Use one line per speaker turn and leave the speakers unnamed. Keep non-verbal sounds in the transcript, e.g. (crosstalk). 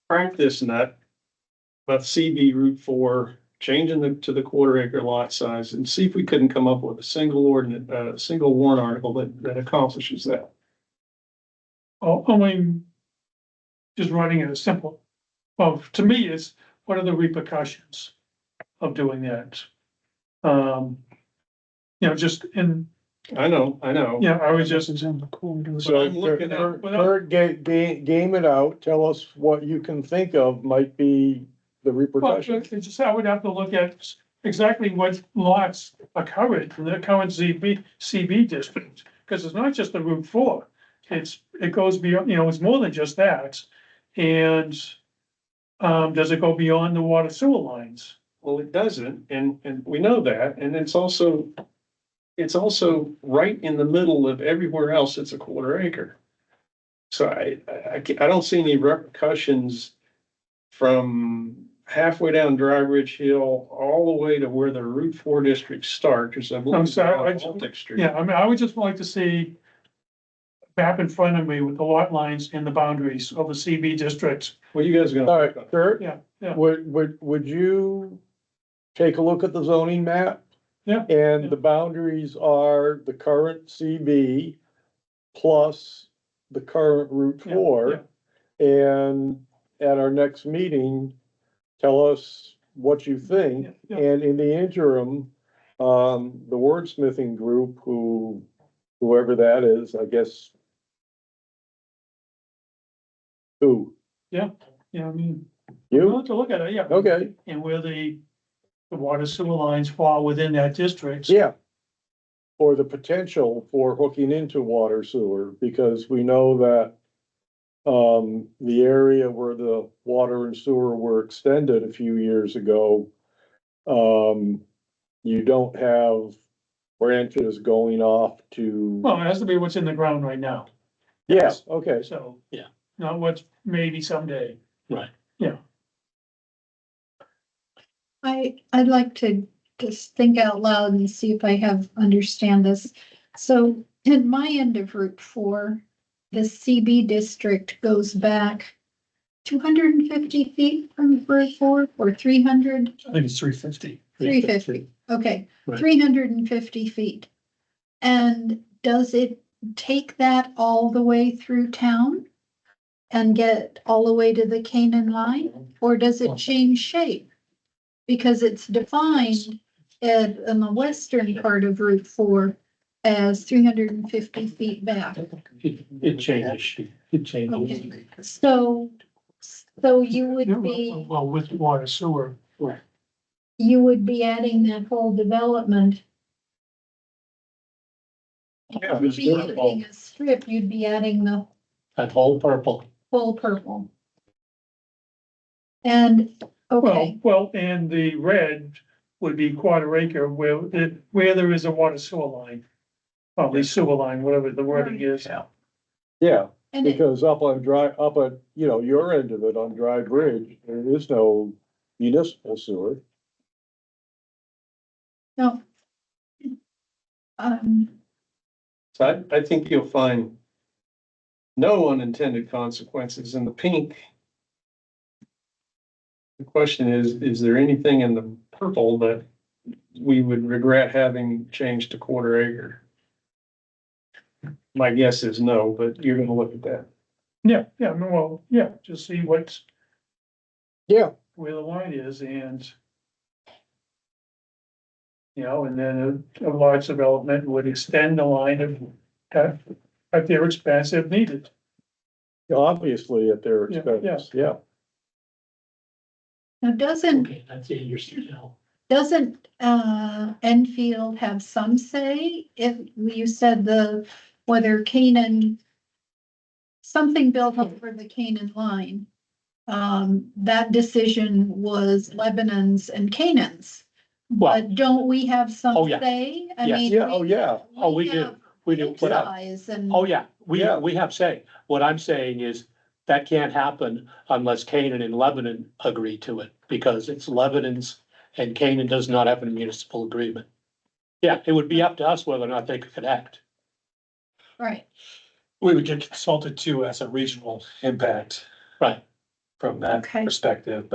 crack this nut about CB Route Four, changing the, to the quarter acre lot size and see if we couldn't come up with a single ordinance, uh, single warrant article that, that accomplishes that.
Oh, I mean, just writing it as simple, of, to me, is what are the repercussions of doing that? Um, you know, just in,
I know, I know.
yeah, I was just,
in the corridor.
So I'm looking at,
Without-
Kurt, ga- ga- game it out, tell us what you can think of might be the
well,
repercussions.
it's just, I would have to look at exactly what lots are covered in the current ZB, CB district. Cause it's not just the Route Four, it's, it goes beyond, you know, it's more than just that. And, um, does it go beyond the water sewer lines?
well, it doesn't, and, and we know that, and it's also, it's also right in the middle of everywhere else, it's a quarter acre. So I, I, I ca- I don't see any repercussions from halfway down Dry Ridge Hill all the way to where the Route Four district starts, because I'm looking
sorry, I-
at Baltic Street.
Yeah, I mean, I would just like to see map in front of me with the lot lines and the boundaries of the CB district.
What are you guys
All right,
gonna?
Kurt,
Yeah, yeah.
would, would, would you take a look at the zoning map?
Yeah.
And the boundaries are the current CB plus the current Route
Yeah,
Four. And at our next meeting, tell us what you think.
Yeah, yeah.
And in the interim, um, the wordsmithing group who, whoever that is, I guess. Who,
Yeah, I mean, we'll
you?
have to look at it, yeah.
Okay,
And where the, the water sewer lines fall within that district.
yeah. Or the potential for hooking into water sewer, because we know that. Um, the area where the water and sewer were extended a few years ago. Um, you don't have branches going off to.
Well, it has to be what's in the ground right now,
Yeah, okay,
so.
Yeah.
Not what's maybe someday.
I, I'd like to just think out loud and see if I have, understand this. So in my end of Route Four, the CB district goes back two hundred and fifty feet from Route Four or three hundred?
I think it's three fifty.
350. Okay,
Right.
three hundred and fifty feet. And does it take that all the way through town? And get all the way to the Canaan line, or does it change shape? Because it's defined at, in the western part of Route Four as three hundred and fifty feet back.
It, it changes, it changes.
Okay. So, so you would be.
Well, with water sewer.
you would be adding that whole development.
Yeah,
You'd be
it's purple.
adding a strip, you'd be adding the
That whole purple,
whole purple. And,
Well,
okay,
well, and the red would be quarter acre where, the- where there is a water sewer line. Probably sewer line, whatever the wording is.
yeah,
and it,
(laughs) because up on dry, up at, you know, your end of it on Dry Bridge, there is no municipal sewer.
no. Um,
So I, I think you'll find no unintended consequences in the pink. The question is, is there anything in the purple that we would regret having changed to quarter acre? My guess is no, but you're gonna look at that.
Yeah, yeah, I mean, well, yeah, just see what's.
Yeah.
Where the line is and. You know, and then a a large development would extend the line of, at, at their expense if needed.
Obviously, at their
Yeah,
expense, yeah.
now doesn't,
okay, that's it, you're still.
doesn't, uh, Enfield have some say? If you said the, whether Canaan, something built over the Canaan line. Um, that decision was Lebanon's and Canaan's.
Well,
But don't we have some
Oh, yeah.
say? I
Yes.
mean,
Yeah, oh, yeah,
Oh, we do.
have
we do, what I-
size and-
oh yeah, we,
Yeah.
we have say, what I'm saying is that can't happen unless Canaan and Lebanon agree to it, because it's Lebanon's and Canaan does not have a municipal agreement. Yeah, it would be up to us whether or not they could act.
Right,
We would get consulted too as a regional impact.
Right.
from that
Okay.
perspective.